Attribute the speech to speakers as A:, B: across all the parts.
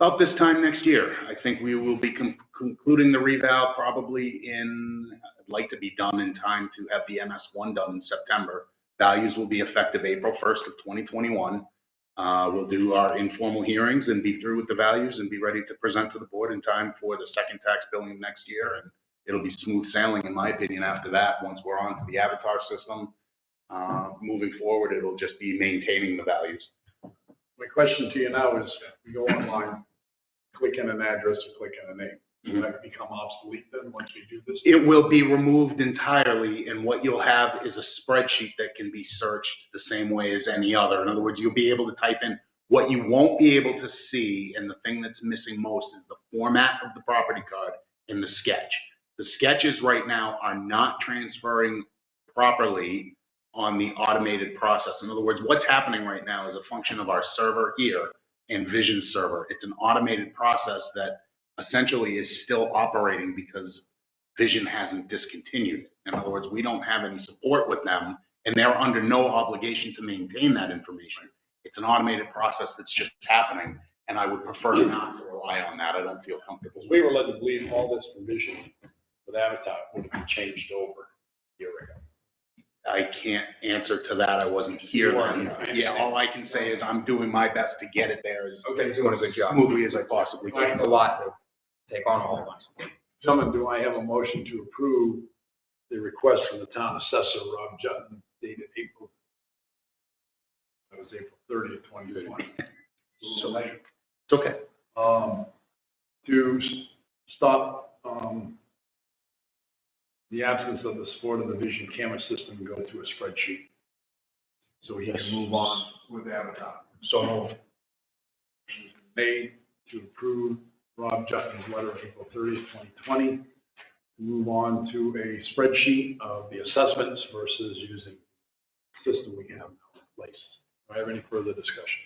A: About this time next year, I think we will be con- concluding the revow probably in, I'd like to be done in time to have the MS one done in September. Values will be effective April first of twenty twenty-one. Uh, we'll do our informal hearings and be through with the values and be ready to present to the board in time for the second tax billing next year. And it'll be smooth sailing, in my opinion, after that, once we're on to the Avatar system. Uh, moving forward, it'll just be maintaining the values.
B: My question to you now is, you go online, click in an address, you click in a name. Does that become obsolete then, once we do this?
A: It will be removed entirely, and what you'll have is a spreadsheet that can be searched the same way as any other. In other words, you'll be able to type in what you won't be able to see, and the thing that's missing most is the format of the property card and the sketch. The sketches right now are not transferring properly on the automated process. In other words, what's happening right now is a function of our server here and Vision Server. It's an automated process that essentially is still operating because Vision hasn't discontinued. In other words, we don't have any support with them, and they're under no obligation to maintain that information. It's an automated process that's just happening, and I would prefer not to rely on that. I don't feel comfortable.
C: Because we were led to believe all this provision with Avatar would have been changed over a year ago.
A: I can't answer to that. I wasn't here then. Yeah, all I can say is I'm doing my best to get it there as
D: Okay, so it's
A: smoothly as I possibly
D: It's
A: can.
D: a lot to take on all at once.
B: Gentlemen, do I have a motion to approve the request from the town assessor, Rob Jutton, dated April? That was April thirtieth, twenty twenty.
A: So- It's okay.
B: um, to s- stop, um, the absence of the support of the vision camera system and go to a spreadsheet. So he can move on with Avatar. So moved. made to approve Rob Justin's letter of April thirtieth, twenty twenty. Move on to a spreadsheet of the assessments versus using the system we have now in place. Do I have any further discussion?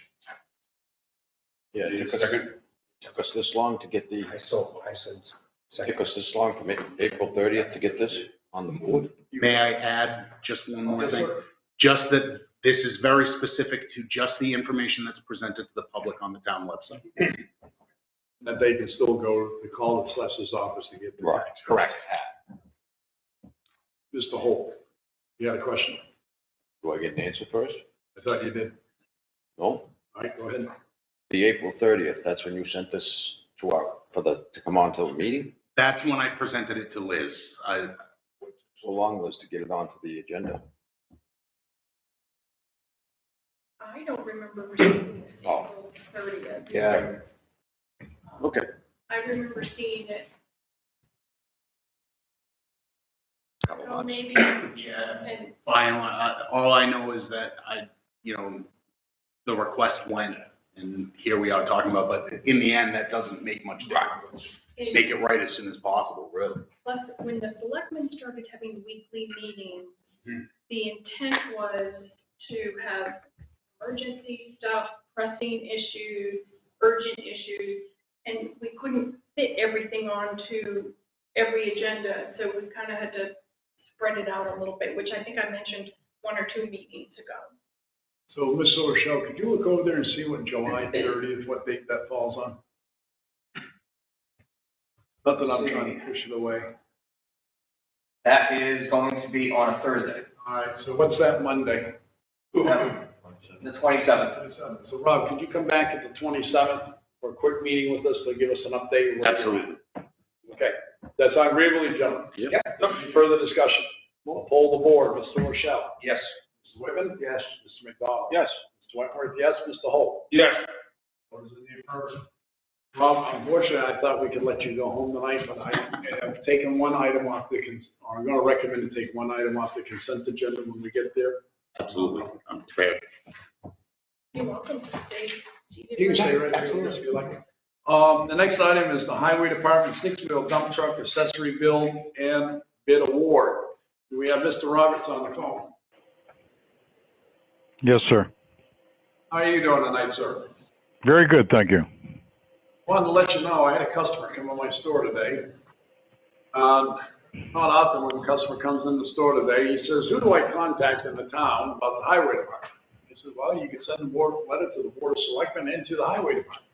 C: Yeah, it took us, took us this long to get the,
D: I still, I said, second,
C: took us this long from A- April thirtieth to get this on the board?
A: May I add just one more thing? Just that this is very specific to just the information that's presented to the public on the town website.
B: that they can still go to call the assessor's office to get the
C: Right.
B: tax.
A: Correct.
B: Mr. Holt, you had a question?
C: Do I get an answer first?
B: I thought you did.
C: No?
B: All right, go ahead.
C: The April thirtieth, that's when you sent this to our, for the, to come on to the meeting?
A: That's when I presented it to Liz. I,
C: So long was to get it onto the agenda.
E: I don't remember receiving it
C: Oh.
E: until thirtieth.
C: Yeah. Okay.
E: I remember seeing it,
C: Couple
E: oh,
C: months.
E: maybe,
A: yeah,
E: and
A: by and large, I- all I know is that I, you know, the request went, and here we are talking about, but in the end, that doesn't make much difference. Make
E: in,
A: it right as soon as possible, really.
E: plus, when the selectmen started having weekly meetings,
A: Hmm.
E: the intent was to have emergency stuff, pressing issues, urgent issues, and we couldn't fit everything onto every agenda, so we kind of had to spread it out a little bit, which I think I mentioned one or two meetings ago.
B: So, Ms. Rochelle, could you look over there and see what July thirtieth, what date that falls on? Not that I'm trying to push it away.
D: that is going to be on a Thursday,
B: All right, so what's that Monday?
D: Seven. the twenty-seventh.
B: Twenty-seventh. So Rob, could you come back at the twenty-seventh for a quick meeting with us to give us an update? We'll-
A: Absolutely.
B: Okay, that's agreeable, gentlemen.
C: Yep.
B: Further discussion. We'll poll the board. Mr. Rochelle?
D: Yes.
B: Mr. Whitman? Yes. Mr. McDonald?
C: Yes.
B: Mr. Wentworth, yes. Mr. Holt?
D: Yes.
B: What is in the affirmative? Rob, unfortunately, I thought we could let you go home tonight, but I have taken one item off the, cons- or I'm gonna recommend to take one item off the consent agenda when we get there.
A: Absolutely. I'm prepared.
E: You're welcome to stay seated.
B: You can stay right there if you like. Um, the next item is the Highway Department six-wheel dump truck accessory bill and bid award. Do we have Mr. Roberts on the phone?
F: Yes, sir.
B: How are you doing tonight, sir?
F: Very good, thank you.
B: Wanted to let you know, I had a customer come in my store today. Um, not often when a customer comes in the store today, he says, who do I contact in the town about the highway department? I said, well, you can send a board, letter to the board of selectmen and to the highway department.